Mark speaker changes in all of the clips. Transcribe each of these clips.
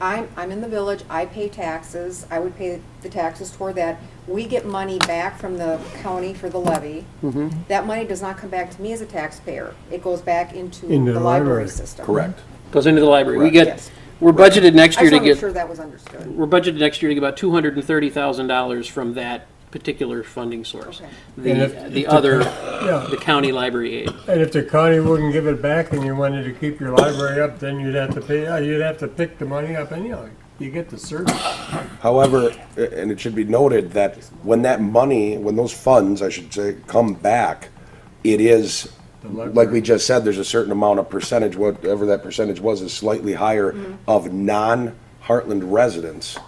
Speaker 1: I'm, I'm in the village, I pay taxes, I would pay the taxes toward that. We get money back from the county for the levy. That money does not come back to me as a taxpayer. It goes back into
Speaker 2: Into
Speaker 1: the
Speaker 2: the
Speaker 1: library
Speaker 2: library.
Speaker 1: system.
Speaker 3: Correct.
Speaker 4: Goes into the library. We
Speaker 3: Correct.
Speaker 4: get,
Speaker 1: Yes.
Speaker 4: we're budgeted next
Speaker 1: I just
Speaker 4: year
Speaker 1: want
Speaker 4: to
Speaker 1: to make
Speaker 4: get,
Speaker 1: sure that was understood.
Speaker 4: we're budgeted next year to get about two hundred and thirty thousand dollars from that particular funding source.
Speaker 1: Okay.
Speaker 2: And
Speaker 4: The,
Speaker 2: if-
Speaker 4: the other,
Speaker 2: Yeah.
Speaker 4: the county library aid.
Speaker 2: And if the county wouldn't give it back and you wanted to keep your library up, then you'd have to pay, uh, you'd have to pick the money up anyhow. You get the service.
Speaker 3: However, a- and it should be noted that when that money, when those funds, I should say, come back, it is, like we just said, there's a certain amount of percentage, whatever that percentage was, is slightly higher of non-Heartland residents.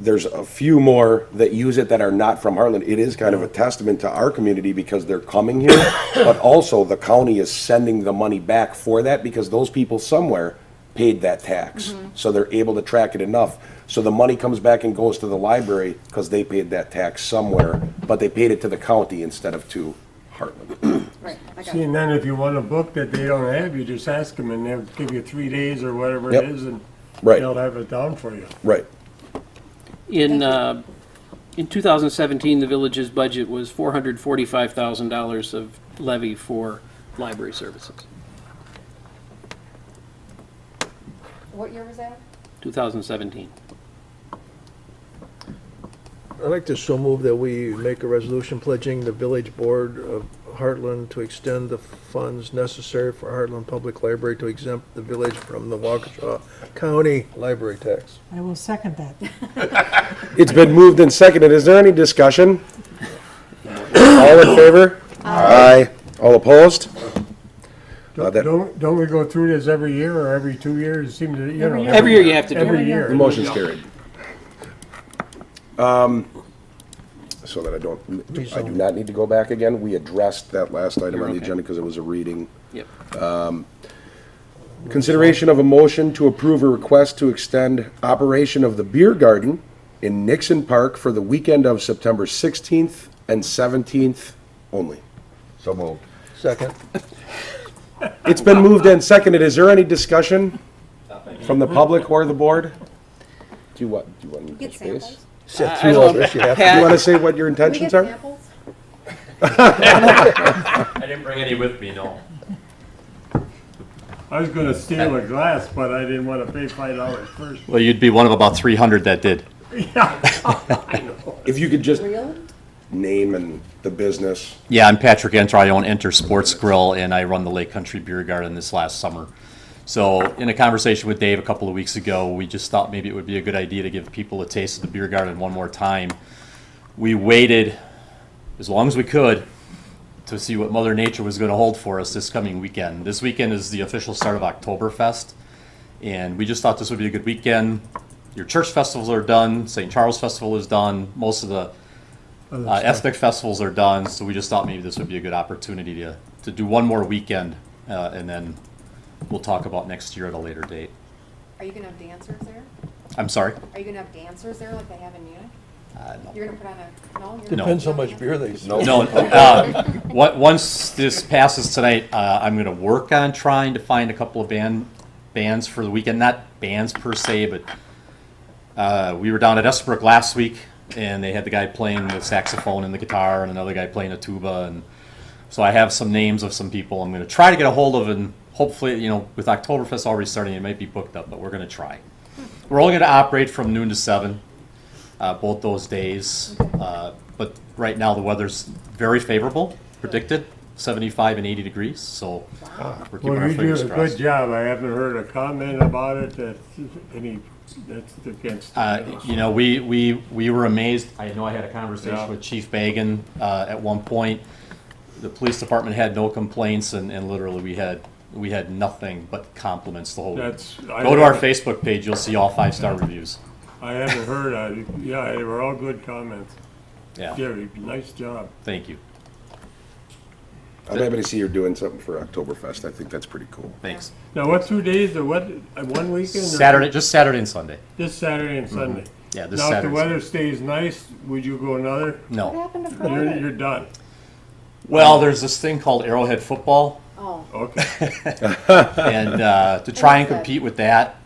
Speaker 3: There's a few more that use it that are not from Heartland. It is kind of a testament to our community because they're coming here, but also the county is sending the money back for that because those people somewhere paid that tax. So they're able to track it enough. So the money comes back and goes to the library because they paid that tax somewhere, but they paid it to the county instead of to Heartland.
Speaker 1: Right, I got
Speaker 2: See,
Speaker 1: it.
Speaker 2: and then if you want a book that they don't have, you just ask them and they'll give you three days or whatever it
Speaker 3: Yep.
Speaker 2: is and
Speaker 3: Right.
Speaker 2: they'll have it down for you.
Speaker 3: Right.
Speaker 4: In, uh, in 2017, the village's budget was $445,000 of levy for library services,
Speaker 1: What year was that?
Speaker 4: 2017.
Speaker 5: I'd like to so move that we make a resolution pledging the village board of Heartland to extend the funds necessary for Heartland Public Library to exempt the village from the Waukesha County library tax.
Speaker 6: I will second that.
Speaker 3: It's been moved and seconded. Is there any discussion? All in favor? Aye. All opposed? Uh, that-
Speaker 2: Don't, don't we go through this every year or every two years? It seems, that, you know.
Speaker 4: Every year you have to do
Speaker 2: Every
Speaker 4: it.
Speaker 2: year.
Speaker 3: The motion's carried. Um, So that I don't, I do not need to go back again. We addressed that last item on the
Speaker 4: okay.
Speaker 3: agenda because it was a reading.
Speaker 4: Yep.
Speaker 3: Consideration of a motion to approve a request to extend operation of the beer garden in Nixon Park for the weekend of September 16th and 17th only. So moved.
Speaker 5: Second.
Speaker 3: It's been moved and seconded. Is there any discussion from the public or the board? Do you want, do you want to
Speaker 1: Get
Speaker 3: space?
Speaker 1: samples?
Speaker 5: Sit through all this, you have to.
Speaker 3: Do you want to say what your
Speaker 1: Can we get
Speaker 3: intentions are?
Speaker 1: samples?
Speaker 7: I didn't bring any with me, no.
Speaker 2: I was gonna steal a glass, but I didn't wanna pay five dollars first.
Speaker 7: Well, you'd be one of about 300 that did.
Speaker 3: If you could just
Speaker 1: Real?
Speaker 3: name and the business.
Speaker 7: Yeah, I'm Patrick Enter. I own Enter Sports Grill, and I run the Lake Country Beer Garden this last summer. So, in a conversation with Dave a couple of weeks ago, we just thought maybe it would be a good idea to give people a taste of the beer garden one more time. We waited as long as we could to see what Mother Nature was going to hold for us this coming weekend. This weekend is the official start of Oktoberfest, and we just thought this would be a good weekend. Your church festivals are done, St. Charles Festival is done, most of the uh, ethnic festivals are done, so we just thought maybe this would be a good opportunity to, to do one more weekend, uh, and then we'll talk about next year at a later date.
Speaker 1: Are you gonna have dancers there?
Speaker 7: I'm sorry.
Speaker 1: Are you gonna have dancers there like they have in Munich?
Speaker 7: Uh, no.
Speaker 1: You're gonna put on a, no? you're not-
Speaker 5: Depends how much beer they sell.
Speaker 7: No, uh, what, once this passes tonight, uh, I'm gonna work on trying to find a couple of band, bands for the weekend, not bands per se, but, uh, we were down at Esbrook last week, and they had the guy playing the saxophone and the guitar, and another guy playing a tuba, and so I have some names of some people I'm gonna try to get a hold of, and hopefully, you know, with Oktoberfest already starting, it might be booked up, but we're gonna try. We're only gonna operate from noon to seven, uh, both those days. Uh, But right now, the weather's very favorable, predicted, 75 and 80 degrees, so we're keeping
Speaker 2: Well,
Speaker 7: our
Speaker 2: you do
Speaker 7: fingers
Speaker 2: a good
Speaker 7: crossed.
Speaker 2: job. I haven't heard a comment about it that's any, that's against.
Speaker 7: Uh, You know, we, we, we were amazed, I know I had a conversation
Speaker 2: Yeah.
Speaker 7: with Chief Bagan uh, at one point. The police department had no complaints, and, and literally, we had, we had nothing but compliments the whole week.
Speaker 2: That's.
Speaker 7: Go to our Facebook page, you'll see all five-star reviews.
Speaker 2: I haven't heard, I, yeah, they were all good comments.
Speaker 7: Yeah,
Speaker 2: Gary, nice job.
Speaker 7: thank you,
Speaker 3: I'm happy to see you're doing something for Oktoberfest. I think that's pretty cool.
Speaker 7: thanks.
Speaker 2: Now, what two days or what, uh, one weekend? or-
Speaker 7: Saturday, just Saturday and Sunday.
Speaker 2: This Saturday and Sunday.
Speaker 7: Mm-hmm. Yeah, this
Speaker 2: Now, if
Speaker 7: Saturday.
Speaker 2: the
Speaker 7: and
Speaker 2: weather
Speaker 7: Sunday.
Speaker 2: stays nice, would you go another?
Speaker 1: What
Speaker 7: No.
Speaker 1: happened to
Speaker 2: You're,
Speaker 1: Friday?
Speaker 2: you're done.
Speaker 7: Well, there's this thing called Arrowhead football,
Speaker 1: Oh,
Speaker 2: Okay.
Speaker 7: and uh, to try and compete with that,